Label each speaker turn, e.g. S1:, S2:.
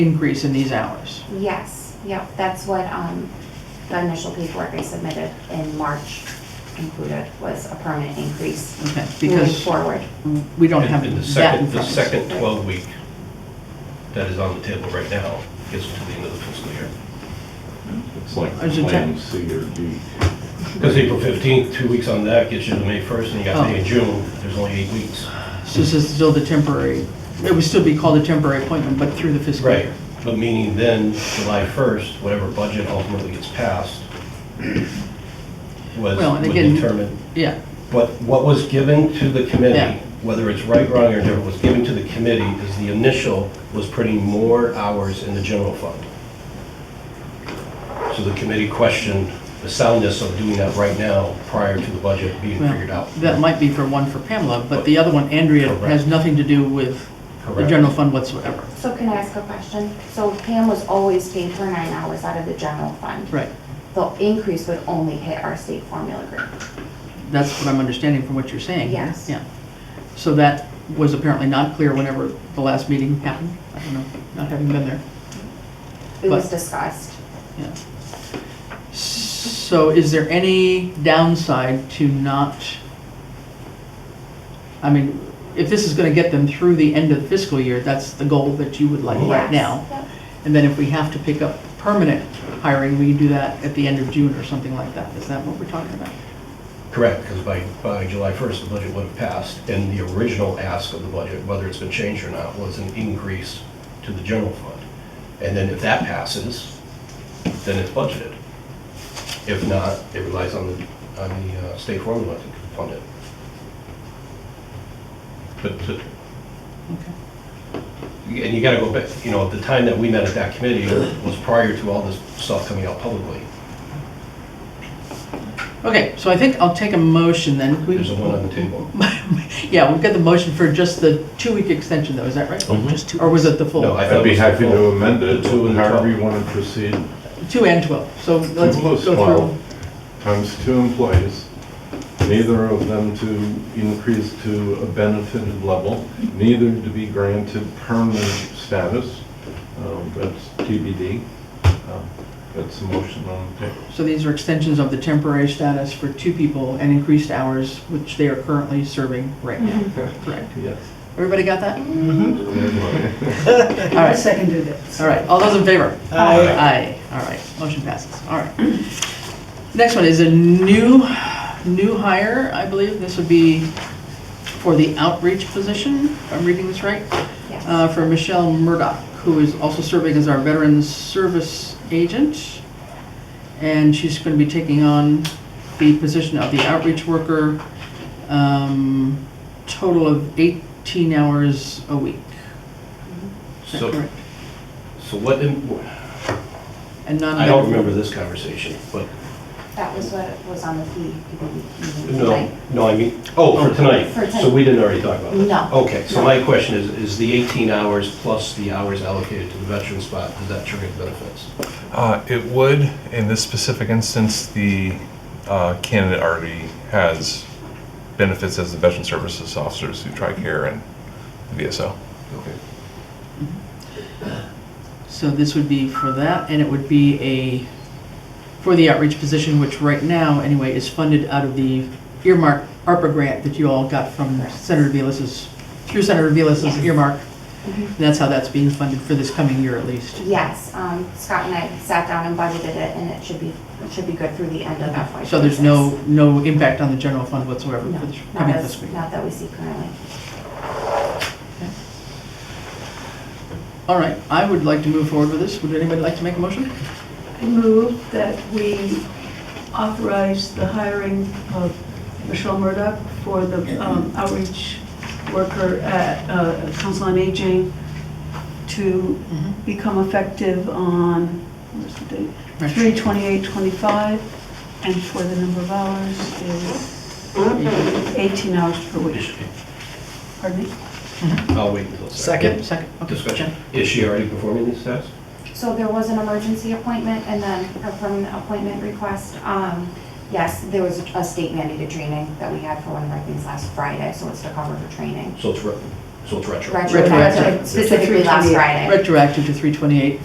S1: increase in these hours.
S2: Yes, yep, that's what, um, the initial paperwork I submitted in March included was a permanent increase
S1: Okay.
S2: moving
S1: Because
S2: forward.
S1: we don't have
S3: And the
S1: that in
S3: second, the
S1: front of us.
S3: second 12-week that is on the table right now gets to the end of the fiscal year.
S4: It's like
S1: As a
S4: plan C or D.
S3: Because April 15th, two weeks on that gets you to May 1st, and you got
S1: Oh.
S3: May and June, there's only eight weeks.
S1: So This is still the temporary, it would still be called a temporary appointment, but through the fiscal
S3: Right,
S1: year.
S3: but meaning then, July 1st, whatever budget ultimately gets passed was,
S1: Well, and
S3: would
S1: again-
S3: determine
S1: Yeah,
S3: But what was given to the
S1: Yeah.
S3: committee, whether it's right, wrong, or different, was given to the committee is the initial was putting more hours in the general fund. So the committee questioned the soundness of doing that right now prior to the budget being
S1: well,
S3: figured out.
S1: that might be for one for Pamela, but the other one, Andrea, has
S3: Correct.
S1: nothing to do with the
S3: Correct.
S1: general fund whatsoever.
S2: So can I ask a question? So Pam was always paid her nine hours out of the general fund.
S1: Right,
S2: The increase would only hit our state formula group.
S1: that's what I'm understanding from what you're saying.
S2: Yes.
S1: Yeah. So that was apparently not clear whenever the last meeting happened. I don't know, not having been there.
S2: It was
S1: But-
S2: discussed.
S1: Yeah. So is there any downside to not, I mean, if this is gonna get them through the end of the fiscal year, that's the goal that you would like right
S2: Yes,
S1: now.
S2: yep.
S1: And then if we have to pick up permanent hiring, we can do that at the end of June or something like that. Is that what we're talking about?
S3: Correct, because by, by July 1st, the budget would have passed, and the original ask of the budget, whether it's been changed or not, was an increase to the general fund. And then if that passes, then it's budgeted. If not, it relies on the, on the uh, state formula to fund it. But, to-
S1: Okay.
S3: and you gotta go back, you know, the time that we met at that committee was prior to all this stuff coming out publicly.
S1: Okay, so I think I'll take a motion then. Can we-
S3: There's a one on the table.
S1: Yeah, we've got the motion for just the two-week extension though, is that right? Or was it the full?
S3: Mm-hmm. No, I thought
S4: I'd be
S3: it was the
S4: happy to
S3: full-
S4: amend it,
S3: the two and the
S4: however
S3: 12.
S4: you want to proceed.
S1: Two and 12, so let's
S4: Two
S1: go
S4: plus
S1: through.
S4: 12 Times two employees, neither of them to increase to a benefited level, neither to be granted permanent status. Um, That's TBD. Um, That's the motion on the table.
S1: So these are extensions of the temporary status for two people and increased hours, which they are currently serving right now.
S5: Mm-hmm.
S1: Correct.
S4: Yes.
S1: Everybody got that? All
S5: I
S1: right,
S5: Mm-hmm. seconded it.
S1: all right. All those in favor?
S5: Aye.
S1: Aye. All right, motion passes. All right. Next one is a new, new hire, I believe. This would be for the outreach position, if I'm reading this right,
S2: Yes.
S1: uh, for Michelle Murdoch, who is also serving as our Veterans Service Agent. And she's going to be taking on the position of the outreach worker, um, total of 18 hours a week. Is that
S3: So,
S1: correct?
S3: so what, in-
S1: And non
S3: I don't remember this conversation, but,
S2: That was what was on the fee. meeting
S3: no,
S2: tonight.
S3: no, I mean, oh, for tonight.
S2: For tonight. Mm-hmm.
S3: So we didn't already talk about
S2: No.
S3: that? Okay, so my question is, is the 18 hours plus the hours allocated to the veteran spot, does that trigger the benefits?
S6: Uh, it would, in this specific instance, the uh, candidate already has benefits as a veteran services officer through TRICARE and the VSO.
S3: Okay.
S1: So this would be for that, and it would be a, for the outreach position, which right now, anyway, is funded out of the earmark ARPA grant that you all got from Senator Velez's, through Senator Velez's
S2: Yes.
S1: earmark.
S2: Mhm.
S1: That's how that's being funded for this coming year at least.
S2: Yes, um, Scott and I sat down and budgeted it, and it should be, it should be good through the end of FY26.
S1: Mm-hmm. So there's no, no impact on the general fund whatsoever
S2: No,
S1: for this
S2: not
S1: coming
S2: as,
S1: fiscal year.
S2: not that we see currently.
S1: All right, I would like to move forward with this. Would anybody like to make a motion?
S5: I move that we authorize the hiring of Michelle Murdock for the um, outreach worker at uh, Council on Aging to
S2: Mm-hmm.
S5: become effective on, where's the date?
S1: Right.
S5: 3/28/25, and for the number of hours is 18 hours per
S3: Is
S5: week.
S3: she-
S5: Pardon me?
S3: I'll wait until.
S1: Yeah, Second, okay.
S3: Discussion. Is she already performing these tasks?
S2: So there was an emergency appointment and then a permanent appointment request. Um, Yes, there was a state mandated training that we had for one of our things last Friday, so it's to cover for training.
S3: So it's, re- so it's retro.
S2: retroactive, specifically last Friday.
S1: retroactive to 328.